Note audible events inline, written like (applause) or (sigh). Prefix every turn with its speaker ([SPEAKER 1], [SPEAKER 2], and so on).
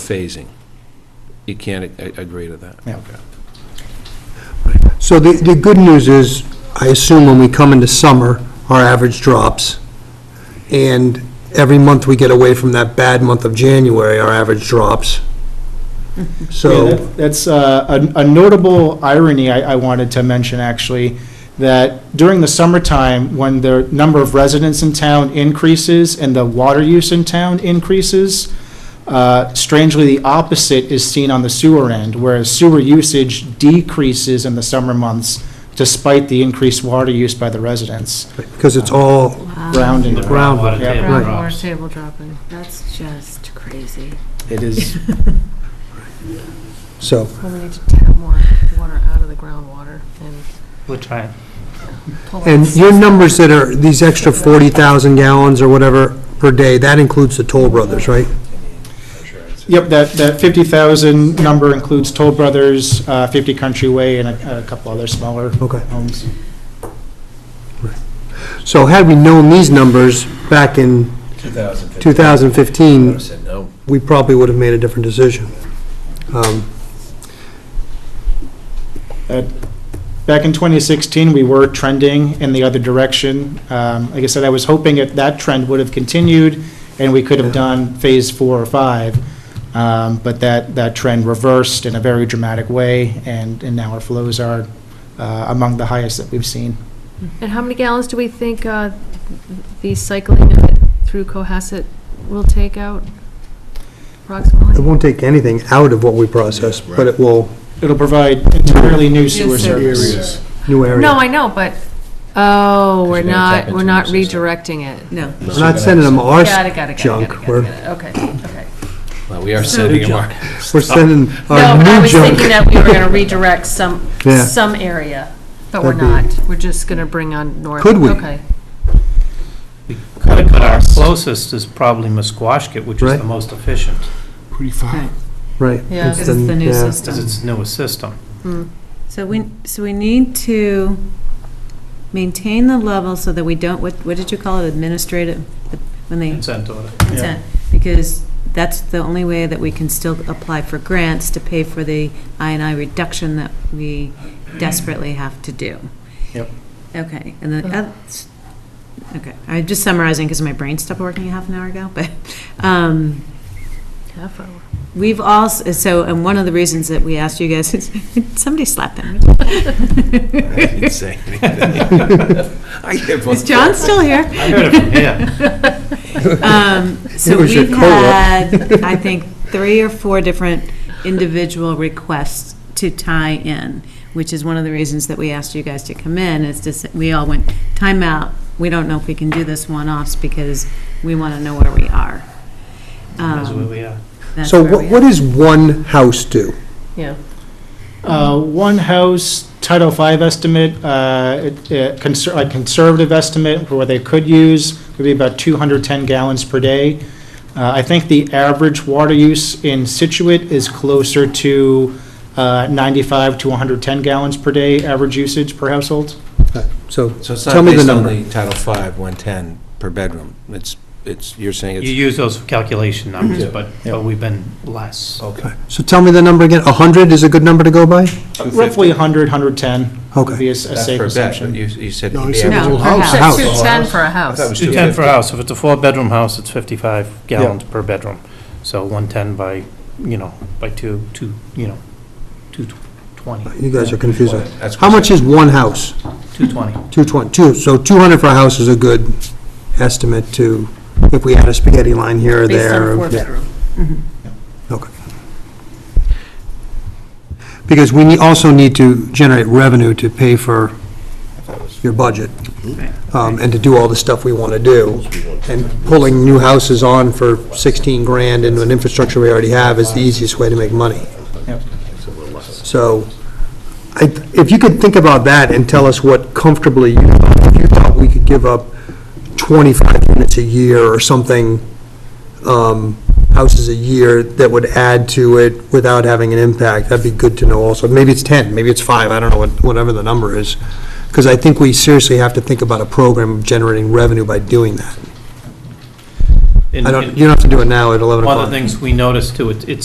[SPEAKER 1] phasing. You can't a- a- agree to that.
[SPEAKER 2] Yeah.
[SPEAKER 3] So the, the good news is, I assume when we come into summer, our average drops, and every month we get away from that bad month of January, our average drops.
[SPEAKER 2] Yeah,
[SPEAKER 3] So,
[SPEAKER 2] that- That's uh, a a notable irony I I wanted to mention, actually, that during the summertime, when the number of residents in town increases and the water use in town increases, uh, strangely, the opposite is seen on the sewer end, whereas sewer usage decreases in the summer months despite the increased water use by the residents,
[SPEAKER 3] because it's all
[SPEAKER 2] round and round.
[SPEAKER 3] ground,
[SPEAKER 2] Yeah.
[SPEAKER 4] table
[SPEAKER 3] Right.
[SPEAKER 4] drops.
[SPEAKER 5] Groundwater table dropping, that's just crazy.
[SPEAKER 2] It
[SPEAKER 6] (laughs)
[SPEAKER 2] is,
[SPEAKER 3] so,
[SPEAKER 5] Well, we need to tap more water out of the groundwater and
[SPEAKER 4] We'll try it.
[SPEAKER 5] pull.
[SPEAKER 3] and
[SPEAKER 5] it.
[SPEAKER 3] your numbers that are, these extra 40,000 gallons or whatever per day, that includes the Toll Brothers, right?
[SPEAKER 2] yep, that that 50,000 number includes Toll Brothers, uh, 50 Country Way, and a a couple other smaller
[SPEAKER 3] Okay.
[SPEAKER 2] homes.
[SPEAKER 3] So had we known these numbers back in 2015,
[SPEAKER 1] Would've said no.
[SPEAKER 3] we probably would have made a different decision. Um,
[SPEAKER 2] Back in 2016, we were trending in the other direction. Um, Like I said, I was hoping that that trend would have continued, and we could have done Phase 4 or 5, Um, but that, that trend reversed in a very dramatic way, and, and now our flows are uh, among the highest that we've seen.
[SPEAKER 5] And how many gallons do we think uh, the cycling of it through Cohasset will take out
[SPEAKER 3] It
[SPEAKER 5] approximately?
[SPEAKER 3] won't take anything out of what we process, but it will,
[SPEAKER 2] It'll provide entirely new sewer
[SPEAKER 5] service.
[SPEAKER 2] service.
[SPEAKER 3] new area.
[SPEAKER 5] No, I know, but, oh, we're
[SPEAKER 7] you're gonna tap
[SPEAKER 5] not,
[SPEAKER 7] into
[SPEAKER 5] we're not
[SPEAKER 7] the system.
[SPEAKER 5] redirecting it.
[SPEAKER 6] No.
[SPEAKER 3] We're not sending them our
[SPEAKER 5] Got it, got it, got it, got it,
[SPEAKER 3] junk,
[SPEAKER 5] got it,
[SPEAKER 3] we're,
[SPEAKER 5] got it, okay, okay.
[SPEAKER 1] Well, we are sending them
[SPEAKER 3] (laughs)
[SPEAKER 1] our,
[SPEAKER 3] we're sending
[SPEAKER 5] No, I
[SPEAKER 3] our new
[SPEAKER 5] was
[SPEAKER 3] junk.
[SPEAKER 5] thinking that we were
[SPEAKER 3] (laughs)
[SPEAKER 5] going to redirect some,
[SPEAKER 3] Yeah.
[SPEAKER 5] some area, but we're
[SPEAKER 3] That'd
[SPEAKER 5] not. We're just going to bring on north.
[SPEAKER 3] Could we?
[SPEAKER 5] Okay.
[SPEAKER 4] But our closest is probably Musquashkett, which is
[SPEAKER 3] Right.
[SPEAKER 4] the most efficient,
[SPEAKER 3] Right.
[SPEAKER 5] Yeah.
[SPEAKER 3] it's
[SPEAKER 6] This is the new
[SPEAKER 3] yeah.
[SPEAKER 4] because
[SPEAKER 6] system.
[SPEAKER 4] it's the newest system.
[SPEAKER 5] Hmm.
[SPEAKER 6] So we, so we need to maintain the level so that we don't, what, what did you call it, administrative, the- when they,
[SPEAKER 4] Consent order.
[SPEAKER 6] consent? Because that's the only way that we can still apply for grants to pay for the INI reduction that we desperately have to do.
[SPEAKER 2] Yep.
[SPEAKER 6] Okay, and the, oth- okay, I'm just summarizing because my brain stopped working half an hour ago, but, um,
[SPEAKER 5] Half hour.
[SPEAKER 6] We've also, so, and one of the reasons that we asked you guys is, (laughs) somebody slap him.
[SPEAKER 1] I didn't say anything. (laughs) I give up.
[SPEAKER 6] Is John still here?
[SPEAKER 4] I heard it from here.
[SPEAKER 6] Um, So
[SPEAKER 3] was your
[SPEAKER 6] we've
[SPEAKER 3] co-op.
[SPEAKER 6] had, I think, three or four different individual requests to tie in, which is one of the reasons that we asked you guys to come in, is to, s- we all went, time out. we don't know if we can do this one-offs because we want to know where we are.
[SPEAKER 4] That's
[SPEAKER 6] Um,
[SPEAKER 4] where we are.
[SPEAKER 6] that's
[SPEAKER 3] So
[SPEAKER 6] where
[SPEAKER 3] what,
[SPEAKER 6] we
[SPEAKER 3] what
[SPEAKER 6] are.
[SPEAKER 3] does one house do?
[SPEAKER 5] Yeah.
[SPEAKER 2] Uh, One house Title V estimate, uh, it- it conser- a conservative estimate for what they could use would be about 210 gallons per day. Uh, I think the average water use in Situate is closer to uh, 95 to 110 gallons per day, average usage per household.
[SPEAKER 3] So,
[SPEAKER 1] So it's
[SPEAKER 3] Tell
[SPEAKER 1] not
[SPEAKER 3] me the
[SPEAKER 1] based on
[SPEAKER 3] number.
[SPEAKER 1] the Title V, 110 per bedroom. It's, it's, you're saying
[SPEAKER 4] You
[SPEAKER 1] it's,
[SPEAKER 4] use those calculation numbers,
[SPEAKER 1] Yeah.
[SPEAKER 4] but, but we've been less.
[SPEAKER 1] okay.
[SPEAKER 3] so tell me the number again, 100 is a good number to go by?
[SPEAKER 1] 250.
[SPEAKER 2] Roughly 100, 110 would be a s- a
[SPEAKER 1] That's
[SPEAKER 2] safe
[SPEAKER 1] per bed, but
[SPEAKER 2] assumption.
[SPEAKER 1] you, you said.
[SPEAKER 7] No,
[SPEAKER 1] the
[SPEAKER 7] I said
[SPEAKER 1] average-
[SPEAKER 7] whole
[SPEAKER 5] No, per
[SPEAKER 3] house.
[SPEAKER 5] house.
[SPEAKER 3] House.
[SPEAKER 5] 210 for a
[SPEAKER 1] I thought it
[SPEAKER 5] house.
[SPEAKER 1] was
[SPEAKER 4] 210 per
[SPEAKER 1] 250.
[SPEAKER 4] house. If it's a four-bedroom house, it's 55 gallons per bedroom. So 110 by, you know, by two, two, you know, 220.
[SPEAKER 3] You guys are confusing.
[SPEAKER 1] That's
[SPEAKER 3] How much is one house?
[SPEAKER 4] 220.
[SPEAKER 3] 220, two, so 200 for a house is a good estimate to, if we add a spaghetti line here or
[SPEAKER 6] Based on
[SPEAKER 3] there.
[SPEAKER 6] four
[SPEAKER 3] yeah.
[SPEAKER 6] bedroom.
[SPEAKER 3] Okay. Because we nee- also need to generate revenue to pay for your budget, um, and to do all the stuff we want to do. And pulling new houses on for 16 grand into an infrastructure we already have is the easiest way to make money.
[SPEAKER 2] Yep.
[SPEAKER 3] So, I, if you could think about that and tell us what comfortably, you thought- if you thought we could give up 25 units a year or something, um, houses a year that would add to it without having an impact, that'd be good to know also. Maybe it's 10, maybe it's five, I don't know, what- whatever the number is. Because I think we seriously have to think about a program of generating revenue by doing that.
[SPEAKER 4] And-
[SPEAKER 3] I don't,
[SPEAKER 4] and
[SPEAKER 3] you don't have to do it now at 11
[SPEAKER 4] One
[SPEAKER 3] o'clock.
[SPEAKER 4] of the things we noticed too, it- it's